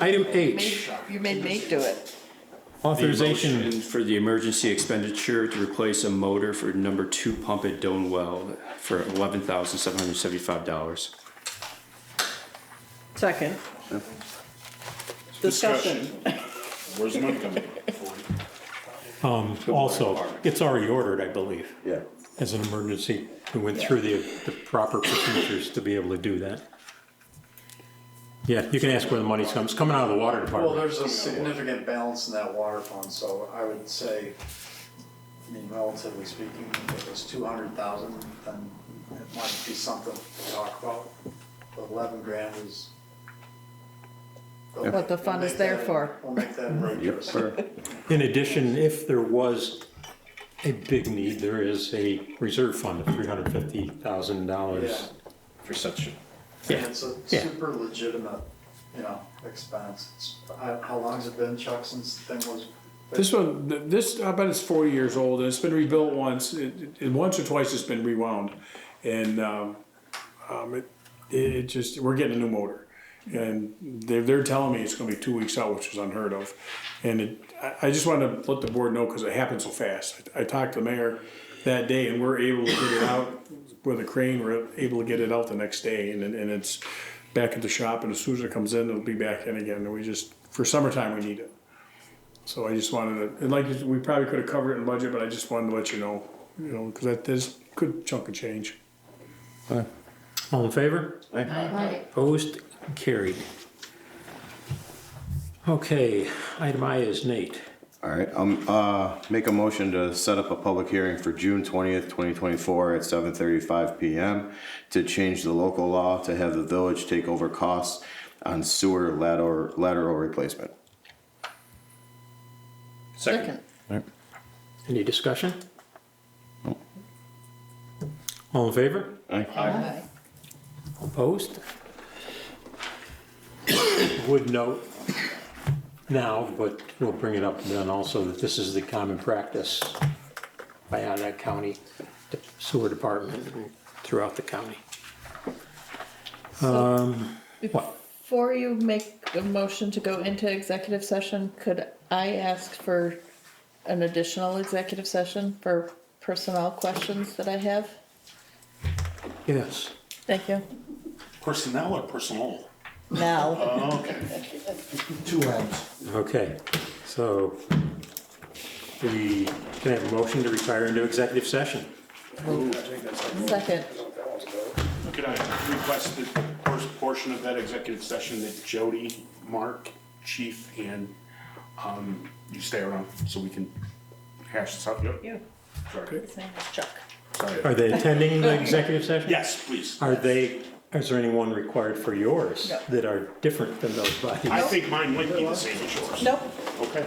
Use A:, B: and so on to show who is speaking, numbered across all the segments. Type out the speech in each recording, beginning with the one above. A: Item H,
B: You made me do it.
C: The
A: authorization.
C: motion For the emergency expenditure to replace a motor for number two pump at Don Well for eleven thousand seven hundred seventy-five dollars.
B: Second. Discussion.
D: Where's the money coming?
A: Also, it's already ordered, I believe,
E: Yeah.
A: as an emergency. We went through the, the proper procedures to be able to do that. Yeah, you can ask where the money's coming. It's coming out of the water
F: Well,
A: department.
F: there's a significant balance in that water fund, so I would say, I mean, relatively speaking, if it was two hundred thousand, then it might be something to talk about. But Eleven grand is.
B: What the fund is there for.
F: We'll make that
E: Yep,
F: rigorous.
E: sir.
A: In addition, if there was a big need, there is a reserve fund of three hundred fifty thousand dollars.
D: For such.
A: Yeah,
F: It's a
A: yeah.
F: super legitimate, you know, expense. It's- I- How long's it been, Chuck, since the thing was?
G: This one, th- this, I bet it's forty years old, and it's been rebuilt once, it, it- it, once or twice it's been rewound. And, um, um, it, it just, we're getting a new motor. And they're, they're telling me it's gonna be two weeks out, which is unheard of. And it, I, I just wanted to let the board know, cause it happened so fast. I I talked to the mayor that day and we're able to get it out with a crane, we're able to get it out the next day and, it- and it's back at the shop and as soon as it comes in, it'll be back in again. And we just, for summertime, we need it. So I just wanted to, and like, we probably could have covered it in budget, but I just wanted to let you know, you know, because that is a good chunk of change.
A: All in favor? Opposed? Carried. Okay, item I is Nate.
E: All right, um, uh, make a motion to set up a public hearing for June twentieth, twenty twenty-four at seven thirty-five PM to change the local law to have the village take over costs on sewer lateral, lateral replacement.
B: Second.
A: Any discussion? All in favor?
B: Aye.
A: Opposed? Would note now, but we'll bring it up then also, that this is the common practice by Onet County Sewer Department throughout the county.
B: Um, Before you make a motion to go into executive session, could I ask for an additional executive session for personnel questions that I have?
A: Yes.
B: Thank you.
D: Personnel or personal?
B: Now,
F: Two ends.
A: Okay, so we can have a motion to retire into executive session.
B: second.
D: Could I request the first portion of that executive session that Jody, Mark, Chief, and, um, you stay around so we can hash this out? Yep.
B: You.
D: Sorry.
B: His name is Chuck.
A: Are
D: Sorry.
A: they attending the executive session?
D: Yes, please.
A: Are they, is there anyone required for yours
B: No.
A: that are different than those bodies?
D: I think mine might be the same as yours.
B: Nope.
D: Okay.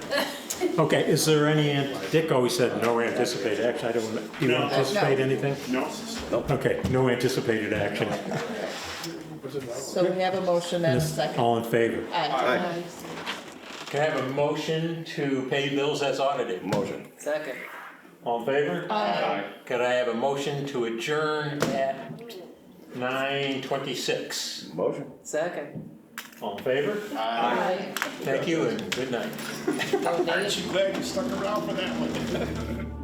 A: Okay, is there any, ant- Dick always said no anticipated action, I don't, do you
D: No.
A: anticipate anything?
D: No?
A: Okay, no anticipated action.
B: So we have a motion and a second.
A: All in favor?
B: Aye.
A: Can I have a motion to pay bills as audited?
E: Motion.
B: Second.
A: All in favor? Aye. Could I have a motion to adjourn at nine twenty-six?
E: Motion.
B: Second.
A: All in favor?
B: Aye.
A: Thank you and good night.
D: Aren't you glad you stuck around for that one?